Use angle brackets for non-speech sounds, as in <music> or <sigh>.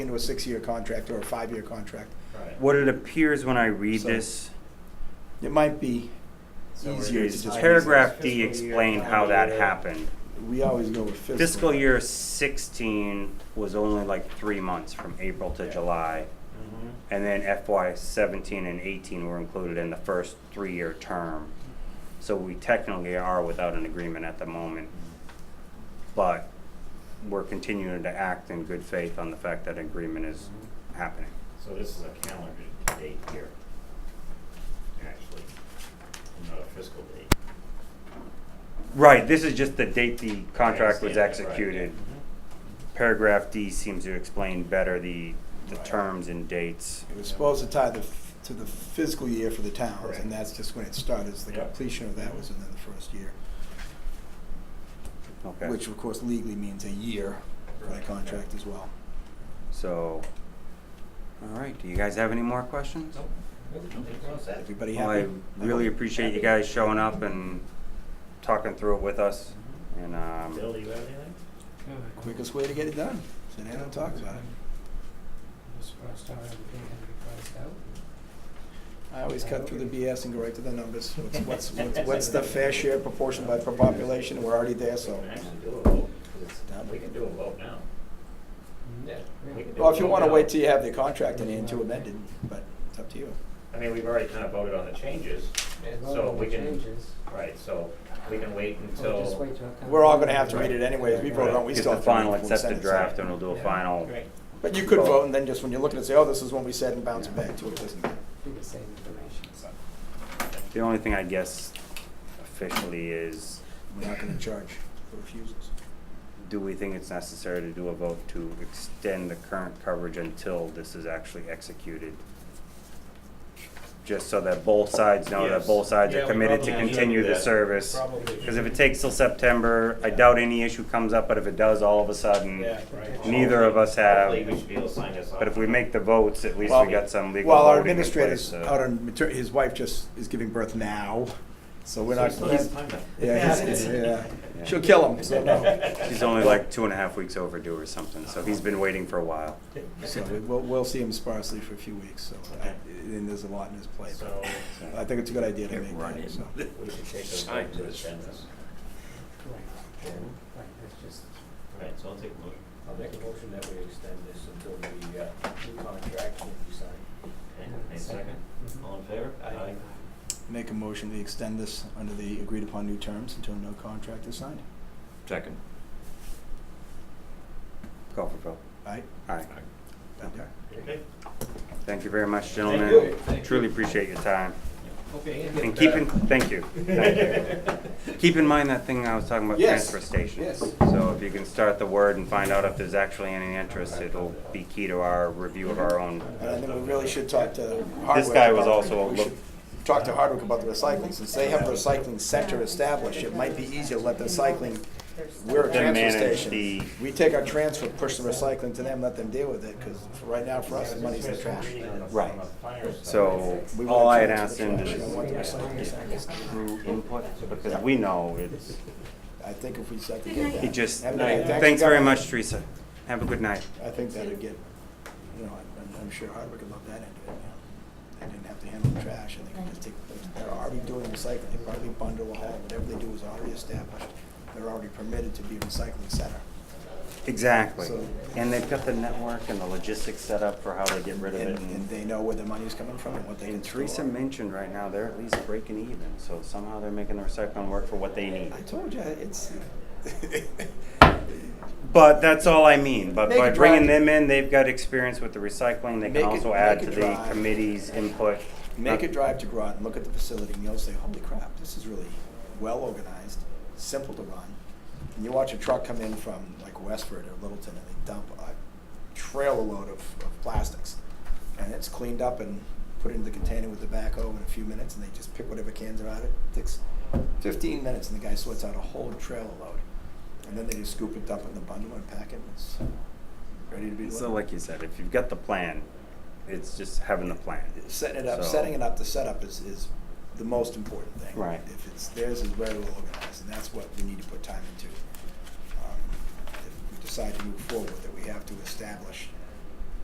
into a six-year contract or a five-year contract. What it appears when I read So- this, It might be easier to is just. paragraph D Fiscal year, explained how that calendar year. happened. We always go with fiscal. Fiscal year sixteen was only like three months from April to Yeah. July. Mm-hmm. And then FY seventeen and eighteen were included in the first three-year term. So we technically are without an agreement at the moment. But we're continuing to act in good faith on the fact that agreement is happening. So this is a calendar date here, actually, and not a fiscal date. Right, this is just the date the contract was I understand that, right, Mm-hmm. executed. Paragraph D seems to explain better the, the Right. terms and dates. It was supposed to tie the, f- to the fiscal year for the towns, Correct. and that's just when it started, is the Yep. completion of that was within the first year. Okay. Which of course legally means a year for the Right. contract as well. So, all right, do you guys have any more questions? Everybody Well, I happy? really appreciate you guys showing up and talking through it with us. And, um, Bill, you have anything? Quickest way to get it done, sit down and talk about it. Just crossed out everything and we crossed out. I always cut through the BS and go right to the numbers. What's- What's, what's, what's the fair share proportion by per population? We're already there, We so. can actually do a vote, 'cause it's- we can do a vote now. We can do Well, if you a vote wanna now. wait till you have the contract and then to amend it, but it's up to you. I mean, we've already kind of voted on the changes, so we can, right, so we can wait until. We're all gonna have to read it anyways. We voted on, we get still the have to read final the full accepted sentence. draft and we'll do a Yeah. final. Great. But you could vote and then just when you're looking at say, oh, this is what we said and bounce it back to it, doesn't it? Do the same information, so. The only thing I guess officially is, We're not gonna charge for refusals. do we think it's necessary to do a vote to extend the current coverage until this is actually executed? Just so that both sides know that Yes. both sides Yeah, are we committed to probably should continue do the that. service. Probably Because if should. it takes till September, I doubt any issue comes up, but if it does, all of a sudden, Yeah, right. neither of us have. Hopefully, we should be able to sign this off. But if we make the votes, at least Well, we got some legal Well, our voting in place. uh, administrator's so- out on, mater- his wife just is giving birth now, so we're So we not. still he's- have time though. Yeah, he's, yeah, she'll kill him, so no. She's only like two and a half weeks overdue or something, so he's been waiting for a while. So we- we'll, we'll see him sparsely for a few weeks, so, I- Okay. and there's a lot in his plate. So- uh, I think it's a good idea to Get make right in. that, so. We should take a Sign vote to this. extend this. Right, right, that's just, Right, so I'll take a motion. I'll make a motion that we extend this until the, uh, new contract will be signed. Okay, any second? Mhm. All in favor? Aye. Make a motion to extend this under the agreed upon new terms until no contract is signed. Second. Call for vote. Aye? Aye. Okay. Okay. <laughs> Thank you very much, Thank gentlemen. you. Thank Truly you. appreciate your time. Okay, And keep in, thank you, thank you. <laughs> Keep in mind that thing I was talking about, Yes, transfer stations. yes. So if you can start the word and find out if there's actually any interest, it'll be key to our review of our own. And I think we really should talk to Hardwick. guy about- was also a we look- should Talk to Hardwick about the recycling, since they have a recycling center established, it might be easier to let the recycling, we're a Then transfer manage station. the- We take our transfer, push the recycling to them, let them deal with it, because right now for us, the money's in the trash. Right. Fire stuff. So We want all I to had transfer asked the him trash, we want the is recycling center. through input, because we know it's, I think if we set to Good get night. that. he just, Have a nice- thanks very Governor. much, Teresa. Have a good night. I think that'd get, you know, I'm, I'm sure Hardwick would love that end of it, you know. They didn't have to handle the trash, and they could just take, they're already doing recycling, they probably bundle a haul, whatever they do is already established. They're already permitted to be a recycling center. Exactly. So- And they've got the network and the logistics set up for how to get rid of And, it. and they know where their money's coming from and what they can And store. Teresa mentioned right now, they're at least breaking even, so somehow they're making the recycling work for what they need. I told you, <laughs> it's, But that's all I mean, but Make by it bringing dry. them in, they've got experience with the recycling, they Make can it- also add make to it the dry. committee's input. make a Not- drive to Groton, look at the facility, and you'll say, holy crap, this is really well organized, simple to run. And you watch a truck come in from like Westford or Littleton, and they dump a trailer load of, of plastics. And it's cleaned up and put into the container with the backhoe in a few minutes, and they just pick whatever cans are out. It takes fifteen minutes, and the guy sorts out a whole trailer load. And then they just scoop it up in the bundle and pack it, and it's ready to be delivered. So like you said, if you've got the plan, it's just having the plan. setting it up, So- setting it up, the setup is, is the most important thing. Right. If it's, theirs is very well organized, and that's what we need to put time into. Um, If we decide to move forward, that we have to establish